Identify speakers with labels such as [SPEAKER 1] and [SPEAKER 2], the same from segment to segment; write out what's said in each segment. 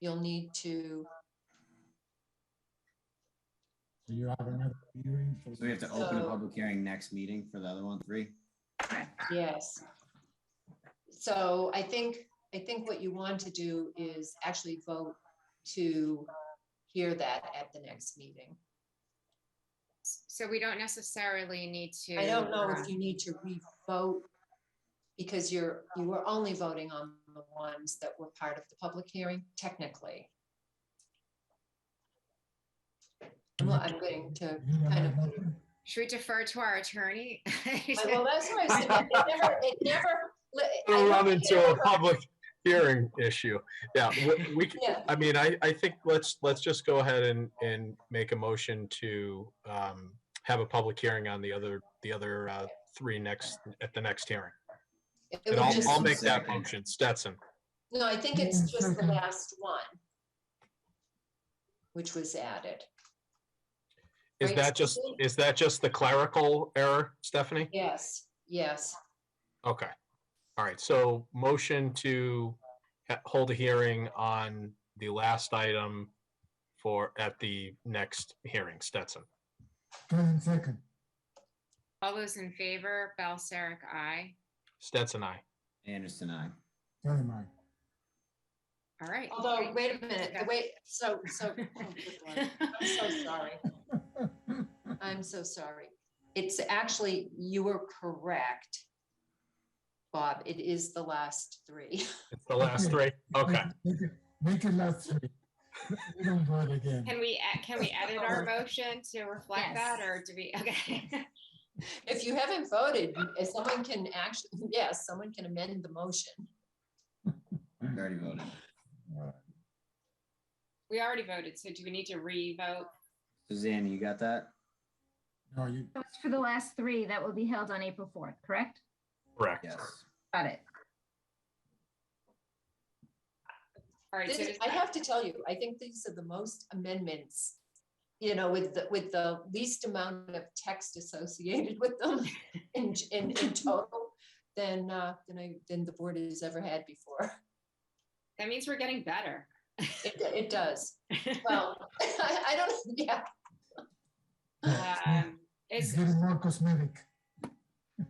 [SPEAKER 1] you'll need to,
[SPEAKER 2] So you have another hearing for.
[SPEAKER 3] So we have to open a
[SPEAKER 1] So-
[SPEAKER 3] public hearing next meeting for the other one, three?
[SPEAKER 1] yes. So I think, I think what you want to do is actually vote to hear that at the next meeting.
[SPEAKER 4] So we don't necessarily need to.
[SPEAKER 1] I don't know
[SPEAKER 4] uh,
[SPEAKER 1] if you need to re-vote because you're, you were only voting on the ones that were part of the public hearing technically. Well, I'm going to kind of-
[SPEAKER 4] Should we defer to our attorney?
[SPEAKER 1] I- Well, that's why I said, it never, it never. li- I
[SPEAKER 5] We'll run
[SPEAKER 1] don't
[SPEAKER 5] into
[SPEAKER 1] care.
[SPEAKER 5] a public hearing issue. Yeah, we, we, c-
[SPEAKER 1] Yeah,
[SPEAKER 5] I mean, I, I think let's, let's just go ahead and, and make a motion to um, have a public hearing on the other, the other uh, three next, at the next hearing.
[SPEAKER 1] it
[SPEAKER 5] And
[SPEAKER 1] would
[SPEAKER 5] I'll,
[SPEAKER 1] just-
[SPEAKER 5] I'll make that
[SPEAKER 3] Second.
[SPEAKER 5] motion, Stetson.
[SPEAKER 1] No, I think it's
[SPEAKER 2] Yeah,
[SPEAKER 1] just the
[SPEAKER 2] okay.
[SPEAKER 1] last one. Which was added.
[SPEAKER 5] Is
[SPEAKER 1] Right,
[SPEAKER 5] that just,
[SPEAKER 1] Stephanie?
[SPEAKER 5] is that just the clerical error, Stephanie?
[SPEAKER 1] Yes, yes,
[SPEAKER 5] Okay. All right, so motion to ha- hold a hearing on the last item for, at the next hearing, Stetson.
[SPEAKER 2] Karen second,
[SPEAKER 4] All those in favor, Balsaric, aye.
[SPEAKER 5] Stetson, I.
[SPEAKER 3] Anderson, I.
[SPEAKER 2] Karen I.
[SPEAKER 4] All right.
[SPEAKER 1] although, wait a minute, the
[SPEAKER 4] Yeah.
[SPEAKER 1] way, so, so. oh, good Lord. I'm so sorry. I'm so sorry. It's actually, you were correct. Bob, it is the last three.
[SPEAKER 5] It's the last three. Okay,
[SPEAKER 2] Make it- Make it last three. We don't do it again.
[SPEAKER 4] Can we, e- can we edit our motion to reflect that or do we, okay?
[SPEAKER 1] If you haven't voted, if someone can actually, yes, someone can amend the motion.
[SPEAKER 3] We Already voted.
[SPEAKER 2] Uh,
[SPEAKER 4] We already voted, so do we need to re-vote?
[SPEAKER 3] Suzanne, you got that?
[SPEAKER 2] No, you,
[SPEAKER 6] So it's for the last three that will be held on April 4th, correct?
[SPEAKER 5] correct.
[SPEAKER 3] Yes.
[SPEAKER 6] Got it.
[SPEAKER 4] All right, so
[SPEAKER 1] This-
[SPEAKER 4] does
[SPEAKER 1] I
[SPEAKER 4] that-
[SPEAKER 1] have to tell you, I think these are the most amendments, you know, with the, with the least amount of text associated with them in, in, in total than, uh, than I, than the board has ever had before.
[SPEAKER 4] that means we're getting better.
[SPEAKER 1] It, it does. Well, I, I don't, yeah,
[SPEAKER 4] Um,
[SPEAKER 2] it's
[SPEAKER 4] Is,
[SPEAKER 2] getting more cosmetic.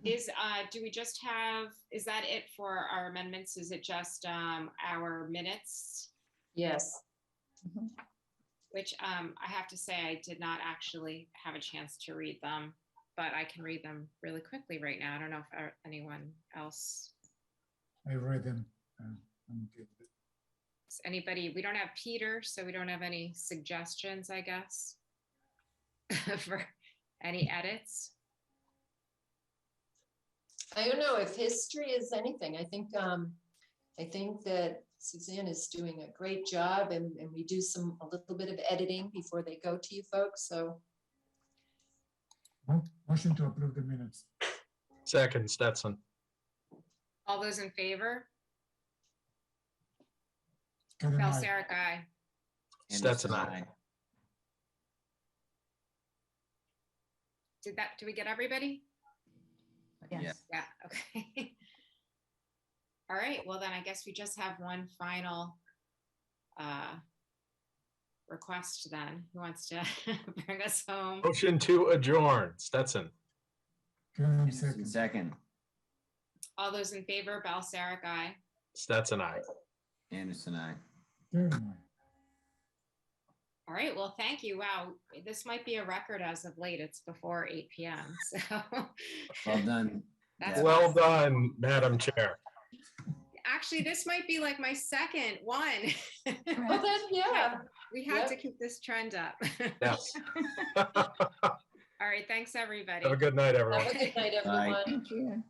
[SPEAKER 4] is, uh, do we just have, is that it for our amendments? Is it just, um, our minutes?
[SPEAKER 1] yes.
[SPEAKER 4] which um, I have to say I did not actually have a chance to read them, but I can read them really quickly right now. I don't know if uh, anyone else,
[SPEAKER 2] I read them. uh, I'm good.
[SPEAKER 4] does anybody, we don't have Peter, so we don't have any suggestions, I guess, for any edits.
[SPEAKER 1] I don't know if history is anything. I think, um, I think that Suzanne is doing a great job and, and we do some, a little bit of editing before they go to you folks, so.
[SPEAKER 2] Mo- Motion to approve the minutes.
[SPEAKER 5] Second, Stetson.
[SPEAKER 4] All those in favor?
[SPEAKER 2] Karen I.
[SPEAKER 4] Balsaric, aye.
[SPEAKER 5] Stetson,
[SPEAKER 3] Anderson,
[SPEAKER 5] aye.
[SPEAKER 4] Did that, did we get everybody?
[SPEAKER 3] Yeah,
[SPEAKER 6] Yes.
[SPEAKER 4] Yeah, okay. All right, well then I guess we just have one final uh request then. Who wants to bring us home?
[SPEAKER 5] Motion to adjourn, Stetson.
[SPEAKER 2] Karen
[SPEAKER 3] Anderson,
[SPEAKER 2] second.
[SPEAKER 3] second.
[SPEAKER 4] All those in favor, Balsaric, aye.
[SPEAKER 5] Stetson, I.
[SPEAKER 3] Anderson, I.
[SPEAKER 2] Karen I.
[SPEAKER 4] All right, well, thank you. Wow, this might be a record as of late. It's before eight PM, so.
[SPEAKER 3] Well done.
[SPEAKER 4] That's
[SPEAKER 3] Deb.
[SPEAKER 5] Well done, Madam Chair.
[SPEAKER 4] Actually, this might be like my second one.
[SPEAKER 1] Well, then, yeah.
[SPEAKER 4] We have to
[SPEAKER 1] Yep.
[SPEAKER 4] keep this trend up.
[SPEAKER 5] Yes. Have
[SPEAKER 4] All right, thanks, everybody.
[SPEAKER 5] a good night, everyone.
[SPEAKER 1] Have a good night,
[SPEAKER 3] Bye.
[SPEAKER 1] everyone.
[SPEAKER 6] Thank you.